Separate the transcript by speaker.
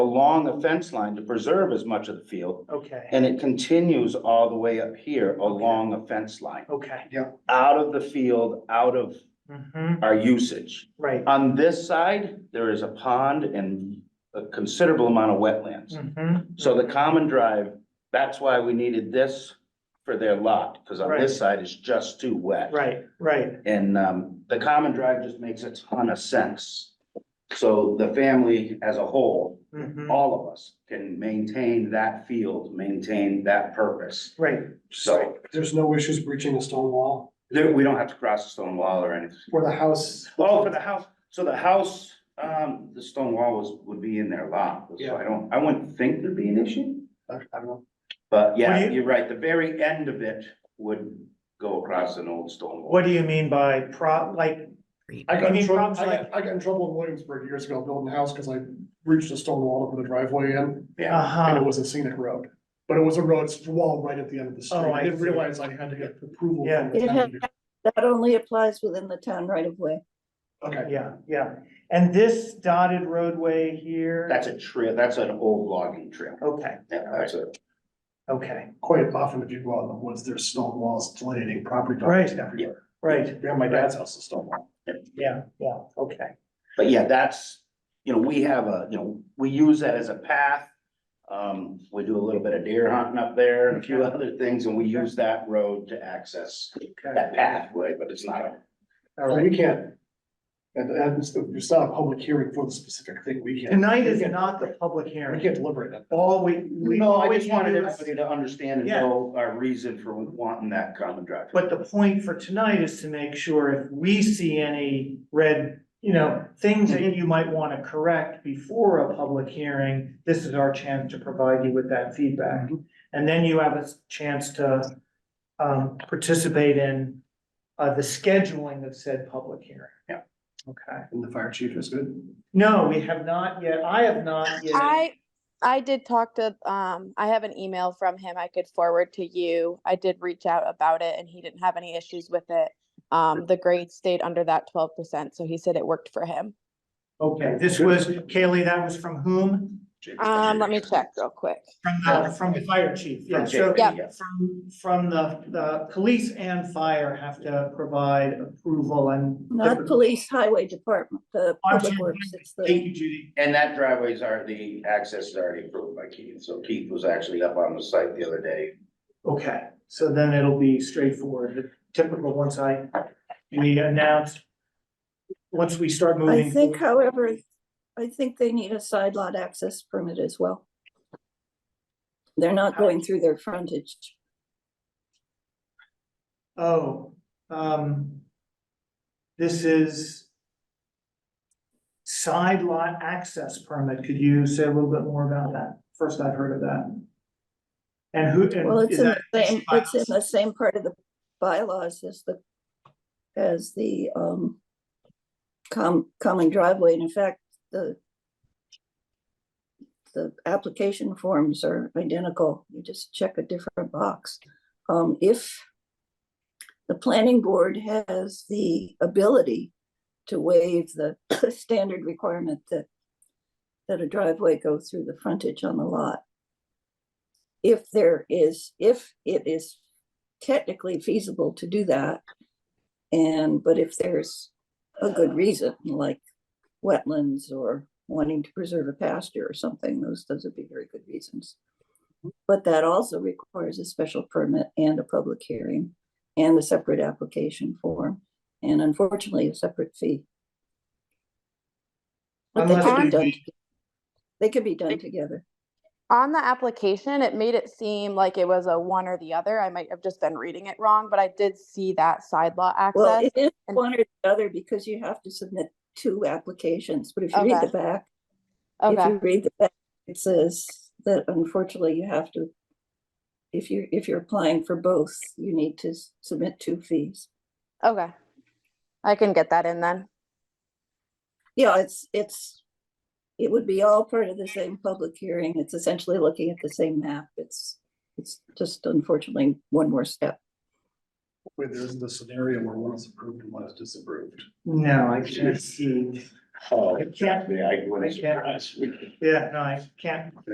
Speaker 1: along the fence line to preserve as much of the field.
Speaker 2: Okay,
Speaker 1: And it continues all the way up here along the fence line,
Speaker 2: okay.
Speaker 1: out of the field, out of
Speaker 2: Mhm,
Speaker 1: our usage.
Speaker 2: Right.
Speaker 1: On this side, there is a pond and a considerable amount of wetlands.
Speaker 2: Mhm,
Speaker 1: So the common drive, that's why we needed this for their lot, because on
Speaker 2: Right.
Speaker 1: this side is just too wet.
Speaker 2: Right, right,
Speaker 1: And um, the common drive just makes a ton of sense. So the family as a whole,
Speaker 2: mhm,
Speaker 1: all of us can maintain that field, maintain that purpose.
Speaker 2: right.
Speaker 1: So
Speaker 3: There's no issues breaching a stone wall
Speaker 1: there, we don't have to cross a stone wall or anything.
Speaker 3: or the house.
Speaker 1: Oh, for the house, so the house, um, the stone wall was, would be in their lot, so I don't, I wouldn't think there'd be an issue.
Speaker 3: I I don't know.
Speaker 1: But
Speaker 2: What
Speaker 1: yeah,
Speaker 2: do you-
Speaker 1: you're right, the very end of it would go across an old stone wall.
Speaker 2: What do you mean by pro, like,
Speaker 3: I got
Speaker 2: You mean
Speaker 3: in trouble,
Speaker 2: problems
Speaker 3: I
Speaker 2: like-
Speaker 3: got, I got in trouble in Williamsburg years ago building a house because I breached a stone wall to put a driveway in
Speaker 1: Yeah,
Speaker 3: and it
Speaker 2: uh-huh,
Speaker 3: was a scenic road. But it was a road, it's a wall right at the end of the street.
Speaker 2: Oh, I
Speaker 3: I didn't
Speaker 2: see.
Speaker 3: realize I had to get approval.
Speaker 2: Yeah.
Speaker 3: from the town.
Speaker 4: That only applies within the town right of way.
Speaker 3: Okay,
Speaker 2: yeah, yeah. And this dotted roadway here?
Speaker 1: that's a trail, that's an old logging trail.
Speaker 2: Okay,
Speaker 1: Yeah, that's a,
Speaker 2: okay,
Speaker 3: quite often if you go out in the woods, there's stone walls delineating property boundaries
Speaker 2: Right.
Speaker 3: everywhere.
Speaker 2: right,
Speaker 3: Yeah, my dad's house is stone wall.
Speaker 2: yeah, yeah, okay.
Speaker 1: but yeah, that's, you know, we have a, you know, we use that as a path. Um, we do a little bit of deer hunting up there and a few other things, and we use that road to access that pathway, but it's not a.
Speaker 2: All
Speaker 3: Well,
Speaker 2: right.
Speaker 3: We can't. And, and it's it's not a public hearing for the specific thing. We can't.
Speaker 2: Tonight
Speaker 3: we
Speaker 2: is
Speaker 3: can't-
Speaker 2: not the public
Speaker 3: We
Speaker 2: hearing.
Speaker 3: can't deliberate it.
Speaker 2: All we, we.
Speaker 1: No,
Speaker 2: all
Speaker 1: I
Speaker 2: we
Speaker 1: just
Speaker 2: can
Speaker 1: wanted
Speaker 2: do is-
Speaker 1: everybody to understand and
Speaker 2: Yeah.
Speaker 1: know our reason for wanting that common drive.
Speaker 2: But the point for tonight is to make sure if we see any red, you know, things that you might want to correct before a public hearing, this is our chance to provide you with that feedback.
Speaker 1: Mm-hmm.
Speaker 2: And then you have a s- chance to um, participate in uh, the scheduling of said public hearing.
Speaker 1: Yeah.
Speaker 2: Okay.
Speaker 3: And the fire chief is good.
Speaker 2: No, we have not yet, I have not yet.
Speaker 5: I, I did talk to, um, I have an email from him I could forward to you. I did reach out about it and he didn't have any issues with it. Um, the grade stayed under that twelve percent, so he said it worked for him.
Speaker 2: Okay, this was, Kaylee, that was from whom?
Speaker 5: Um, let me check real quick.
Speaker 2: From the, from the fire chief, yeah,
Speaker 1: From
Speaker 2: so
Speaker 1: Jake, yeah.
Speaker 2: from, from the, the police and fire have to provide approval and.
Speaker 4: Not police highway department, the
Speaker 2: I'm
Speaker 4: public
Speaker 2: sorry.
Speaker 4: works. It's
Speaker 2: Thank
Speaker 4: the,
Speaker 2: you, Judy.
Speaker 1: And that driveway's are, the access is already approved by Keith, so Keith was actually up on the site the other day.
Speaker 2: Okay, so then it'll be straightforward, the typical, once I, we announced, once we start moving.
Speaker 4: I think however, I think they need a side lot access permit as well. They're not going through their frontage.
Speaker 2: Oh, um. This is. Side lot access permit, could you say a little bit more about that? First I've heard of that. And who? and
Speaker 4: Well, it's
Speaker 2: is
Speaker 4: in
Speaker 2: that-
Speaker 4: the same, it's in the same part of the bylaws as the, as the, um, com, common driveway, and in fact, the the application forms are identical, you just check a different box. Um, if the planning board has the ability to waive the standard requirement that that a driveway go through the frontage on the lot if there is, if it is technically feasible to do that. And, but if there's a good reason, like wetlands or wanting to preserve a pasture or something, those, those would be very good reasons. But that also requires a special permit and a public hearing and a separate application form and unfortunately a separate fee. But they
Speaker 2: Unless
Speaker 4: could be
Speaker 5: they
Speaker 4: done, they could be done together.
Speaker 5: On the application, it made it seem like it was a one or the other. I might have just been reading it wrong, but I did see that side lot
Speaker 4: Well,
Speaker 5: access.
Speaker 4: it is
Speaker 5: and-
Speaker 4: one or the other because you have to submit two applications, but if you read
Speaker 5: Okay.
Speaker 4: the back, if
Speaker 5: Okay,
Speaker 4: you read the back, it says that unfortunately you have to, if you, if you're applying for both, you need to s- submit two fees.
Speaker 5: okay. I can get that in then.
Speaker 4: Yeah, it's, it's, it would be all part of the same public hearing. It's essentially looking at the same map. It's, it's just unfortunately one more step.
Speaker 3: Wait, there isn't a scenario where one is approved and one is disapproved.
Speaker 2: No, I can't see.
Speaker 1: Oh,
Speaker 2: I can't-
Speaker 1: yeah, I
Speaker 2: I
Speaker 1: wouldn't
Speaker 2: can't-
Speaker 1: surprise me.
Speaker 2: Yeah, no, I can't